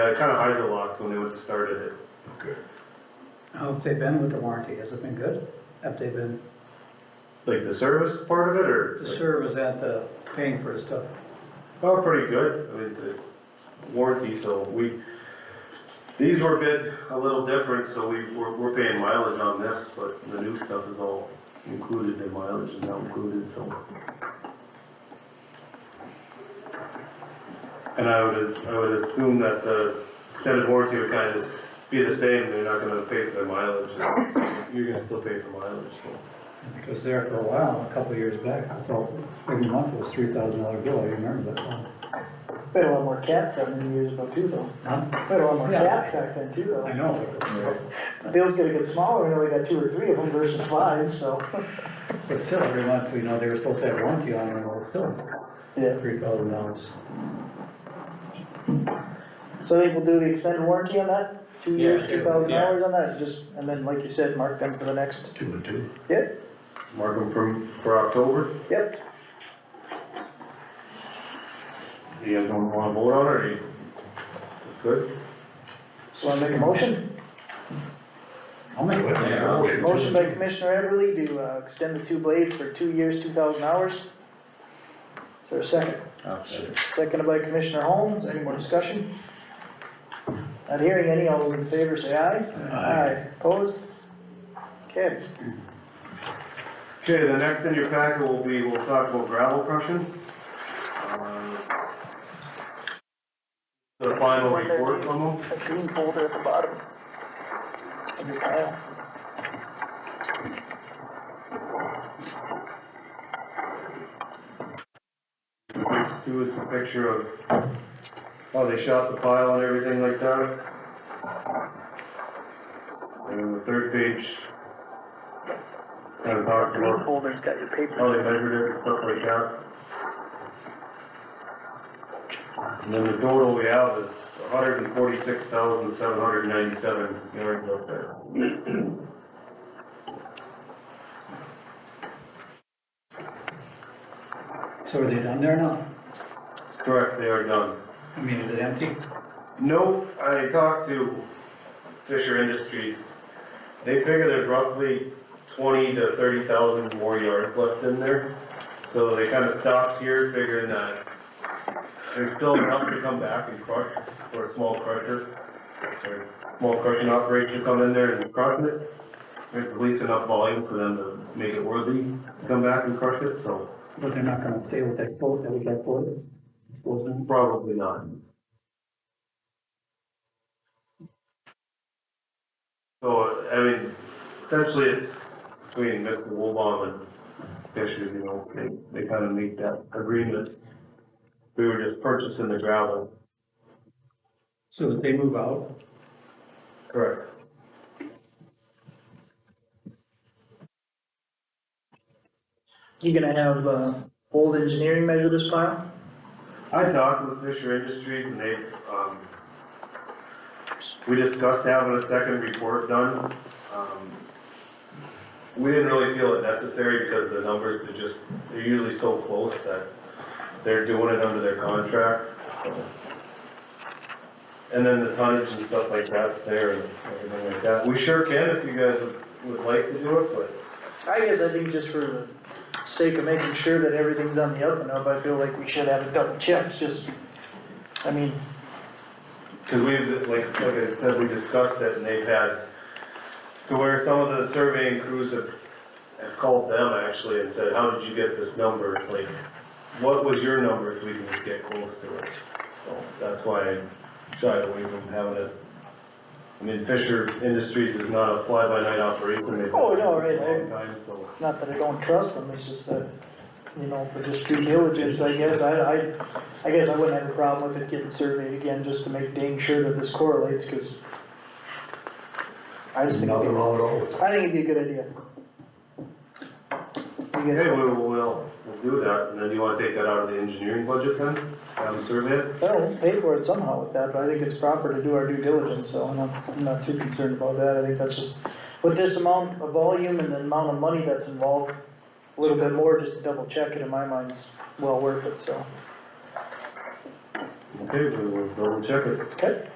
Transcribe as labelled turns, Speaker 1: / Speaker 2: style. Speaker 1: Yeah, it kind of hydrolocked when they went to start it.
Speaker 2: Good.
Speaker 3: How have they been with the warranty? Has it been good? Have they been,
Speaker 1: Like the service part of it or?
Speaker 3: the service at the paying for the stuff?
Speaker 1: Oh, pretty good. I mean, the warranty, so we, these were bid a little different, so we, we're, we're paying mileage on this, but the new stuff is all included in mileage is not included, so. And I would, I would assume that the extended warranty would kind of just be the same. They're not gonna pay for their mileage. You're gonna still pay for mileage, so.
Speaker 3: It was there for a while, a couple of years back. I thought every month it was three thousand dollar bill. I remember that one.
Speaker 4: We had a lot more cats seventy years ago too though.
Speaker 3: Huh?
Speaker 4: We had a lot more
Speaker 3: Yeah.
Speaker 4: cats back then too
Speaker 3: I
Speaker 4: though.
Speaker 3: know.
Speaker 4: Bill's gonna get smaller, we only got two or three of them versus five, so.
Speaker 3: But still, every month, you know, they were supposed to have warranty on it, or still,
Speaker 4: Yeah,
Speaker 3: three thousand dollars.
Speaker 4: so I think we'll do the extended warranty on that, two
Speaker 5: Yeah,
Speaker 4: years,
Speaker 5: yeah,
Speaker 4: two thousand
Speaker 5: yeah.
Speaker 4: hours on that, just, and then like you said, mark them for the next,
Speaker 2: Two and two.
Speaker 1: Mark them from, for October.
Speaker 4: yep.
Speaker 1: You guys don't wanna vote on it or you? That's good.
Speaker 4: So I make a motion,
Speaker 3: I'll make it.
Speaker 4: motion by Commissioner Everly to, uh, extend the two blades for two years, two thousand hours. Is there a second?
Speaker 3: Oh,
Speaker 4: Seconded by Commissioner Holmes, any more discussion? Not hearing any, all those in favor say aye. Aye. Opposed? Okay,
Speaker 1: Okay, the next in your packet will be, we'll talk about gravel crushing. Um, The final report from them.
Speaker 4: a green folder at the bottom. Of your pile.
Speaker 1: Page two is a picture of how they shot the pile and everything like that. And then the third page kind of talks
Speaker 4: Green
Speaker 1: about
Speaker 4: folder's got your paper.
Speaker 1: how they measured it and stuff like that. And then the total we have is hundred and forty-six thousand, seven hundred and ninety-seven yards up there.
Speaker 3: So are they done there now?
Speaker 1: Correct, they are done.
Speaker 3: I mean, is it empty?
Speaker 1: No, I talked to Fisher Industries. They figure there's roughly twenty to thirty thousand more yards left in there. So they kinda stopped here figuring that there's still enough to come back and crush for a small crusher. Or small crushing operation to come in there and crush it. There's at least enough volume for them to make it worthy to come back and crush it, so
Speaker 3: But they're not gonna stay with that quote that we got for it? Suppose not.
Speaker 1: probably not. So, I mean, essentially it's between Mr. Woolbaum and Fisher, you know, they, they kind of make that agreement. We were just purchasing the gravel.
Speaker 3: So that they move out,
Speaker 1: Correct.
Speaker 4: You gonna have, uh, old engineering measure this pile?
Speaker 1: I talked with Fisher Industries and they, um, we discussed having a second report done. Um, We didn't really feel it necessary because the numbers are just, they're usually so close that they're doing it under their contract. And then the tonnage and stuff like that's there and everything like that. We sure can if you guys would- would like to do it, but
Speaker 4: I guess I think just for the sake of making sure that everything's on the up and up, I feel like we should have it double checked, just, I mean,
Speaker 1: Cause we've, like, like I said, we discussed it and they've had, to where some of the surveying crews have, have called them actually and said, how did you get this number? Like, what was your number if we didn't get close to it? So that's why I shied away from having it. I mean, Fisher Industries is not a fly-by-night operation. They've been in
Speaker 4: Oh, no,
Speaker 1: business a
Speaker 4: right.
Speaker 1: long time, so.
Speaker 4: not that I don't trust them, it's just that, you know, for just due diligence, I guess, I, I, I guess I wouldn't have a problem with it getting surveyed again, just to make dang sure that this correlates, cause I just think,
Speaker 2: Nothing
Speaker 4: it'd
Speaker 2: wrong at all with
Speaker 4: be-
Speaker 2: it.
Speaker 4: I think it'd be a good idea. You guys-
Speaker 1: Okay, we will, we'll, we'll do that. And then you wanna take that out of the engineering budget then? Have them survey it?
Speaker 4: Well, we'll pay for it somehow with that, but I think it's proper to do our due diligence, so I'm not, I'm not too concerned about that, I think that's just, with this amount of volume and the amount of money that's involved, a little bit more just to double check it in my mind is well worth it, so,
Speaker 1: Okay, we will double check it.
Speaker 4: okay?